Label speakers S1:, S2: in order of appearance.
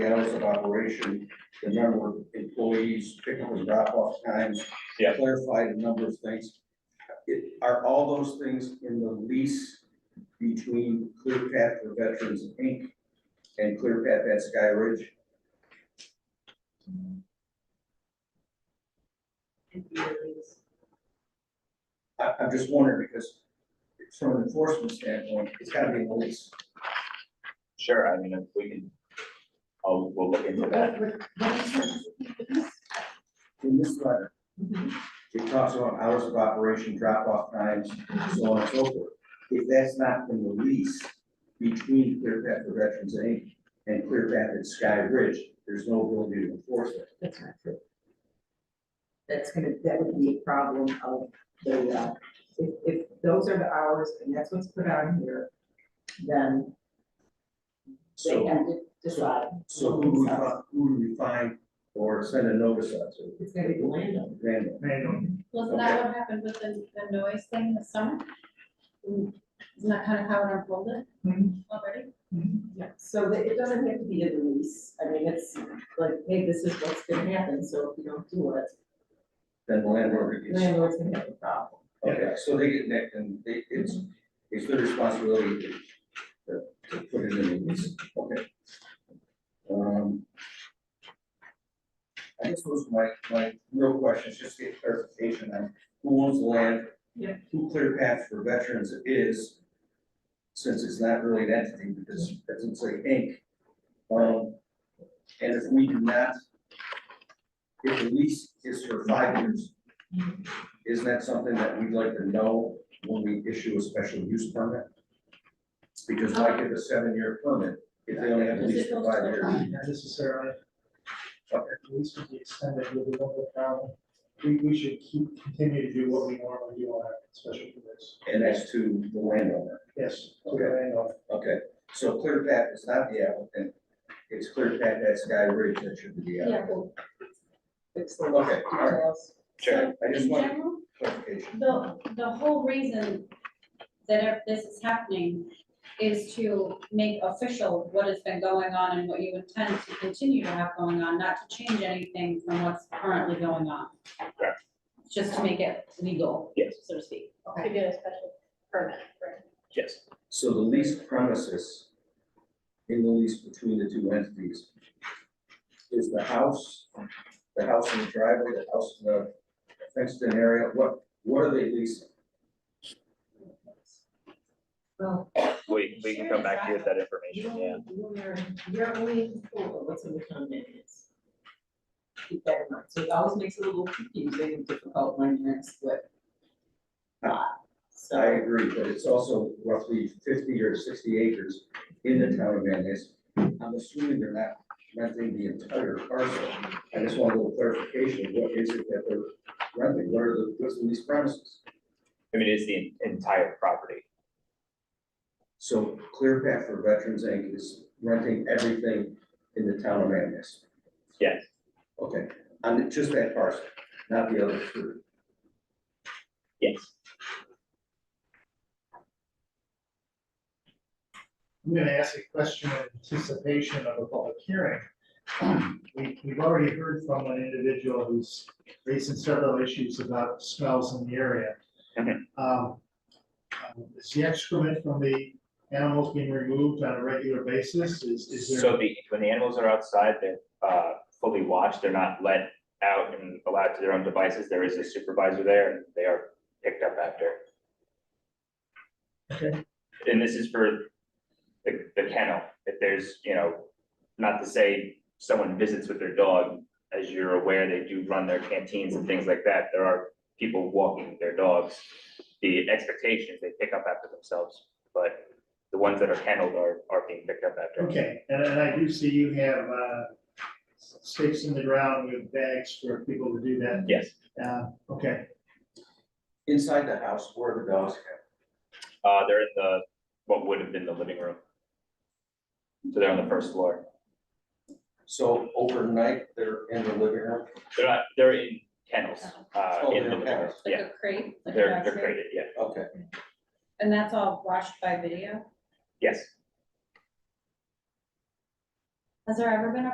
S1: hours of operation, the number of employees, pickup and drop off times.
S2: Yeah.
S1: Clarified a number of things. It- Are all those things in the lease between Clear Path for Veterans Inc. and Clear Path at Sky Ridge? I, I'm just wondering because from an enforcement standpoint, it's gotta be a lease.
S2: Sure, I mean, if we can, oh, we'll look into that.
S1: In this letter, it talks about hours of operation, drop off times, so on and so forth. If that's not in the lease between Clear Path for Veterans Inc. and Clear Path at Sky Ridge, there's no ability to enforce it.
S3: That's not true. That's gonna, that would be a problem of the, uh, if, if those are the hours and that's what's put on here, then they
S1: So,
S3: have to decide.
S1: so who do we, fi- who do we find or send a notice out to?
S3: It's gonna be the landowner.
S1: Random.
S4: Wasn't that what happened with the, the noise thing this summer? Isn't that kind of how it unfolded already?
S3: Yeah, so that it doesn't have to be a lease. I mean, it's like, hey, this is what's gonna happen, so if you don't do it,
S1: Then the landlord
S3: the
S1: gets.
S3: landlord's gonna have a problem.
S1: Okay, so they get that, and they, it's, it's their responsibility to, to- to put it in the lease, okay. Um. I guess those are my, my real questions, just to get clarification on who owns the land?
S3: Yeah.
S1: Who Clear Path for Veterans is, since it's not really an entity, because it doesn't say Inc. Um, and if we do not, if the lease is for five years, isn't that something that we'd like to know when we issue a special use permit? Because why give a seven-year permit if they only have a lease for five years?
S5: Not necessarily.
S1: Okay.
S5: At least with the extended, with the local problem, we, we should keep, continue to do what we normally do on our special permits.
S1: And that's to the landowner.
S5: Yes, to the landowner.
S1: Okay, so Clear Path is not the applicant. It's Clear Path, that's Sky Ridge, that should be the applicant.
S3: Fix the
S1: Okay, all right.
S3: details.
S2: Sure.
S1: I just
S4: In
S1: want
S4: general,
S1: clarification.
S4: the, the whole reason that if this is happening is to make official what has been going on and what you intend to continue to have going on, not to change anything from what's currently going on.
S2: Correct.
S4: Just to make it legal,
S2: Yes,
S4: so to speak.
S3: Okay.
S6: to get a special permit, right?
S2: yes.
S1: So the lease premises in the lease between the two entities is the house, the house in the driveway, the house in the fenced-in area, what, what are they leasing?
S3: Well,
S2: We, we can come back to you with that
S3: you
S2: information, yeah.
S3: don't, you're, you're only in control of what's in the condominiums. Keep that in mind, so it always makes it a little confusing and difficult when you're in split. lot.
S1: I
S3: so,
S1: agree, but it's also roughly fifty or sixty acres in the town of Manlius. I'm assuming they're not renting the entire parcel. I just want a little clarification, of what is it that they're renting, what are the, what's in these premises?
S2: I mean, it's the entire property.
S1: So Clear Path for Veterans Inc. is renting everything in the town of Manlius.
S2: Yes.
S1: Okay, on just that parcel, not the other three.
S2: Yes.
S5: I'm gonna ask a question in anticipation of a public hearing. We, we've already heard from an individual who's raising several issues about smells in the area.
S2: Mhm.
S5: Um, um, Is the excrement from the animals being removed on a regular basis? Is, is there?
S2: So the, when the animals are outside, they're, uh, fully watched, they're not let out and allowed to their own devices. There is a supervisor there, and they are picked up after.
S5: Okay.
S2: And this is for the, the kennel. If there's, you know, not to say someone visits with their dog, as you're aware, they do run their canteens and things like that. There are people walking their dogs. The expectation is they pick up after themselves, but the ones that are kenneled are, are being picked up after.
S5: Okay, and, and I do see you have, uh, stakes in the ground with bags for people to do that.
S2: Yes,
S5: Uh, okay,
S1: Inside the house, where are the dogs kept?
S2: uh, they're in the, what would have been the living room. So they're on the first floor.
S1: So overnight, they're in the living room?
S2: They're not, they're in kennels, uh,
S1: Oh,
S2: in
S1: they're
S2: the living room.
S1: kennels.
S4: Like
S2: Yeah,
S4: a crate, like a
S2: they're, they're
S4: dog crate.
S2: crated, yeah.
S1: Okay,
S4: And that's all watched by video?
S2: Yes.
S4: Has there ever been a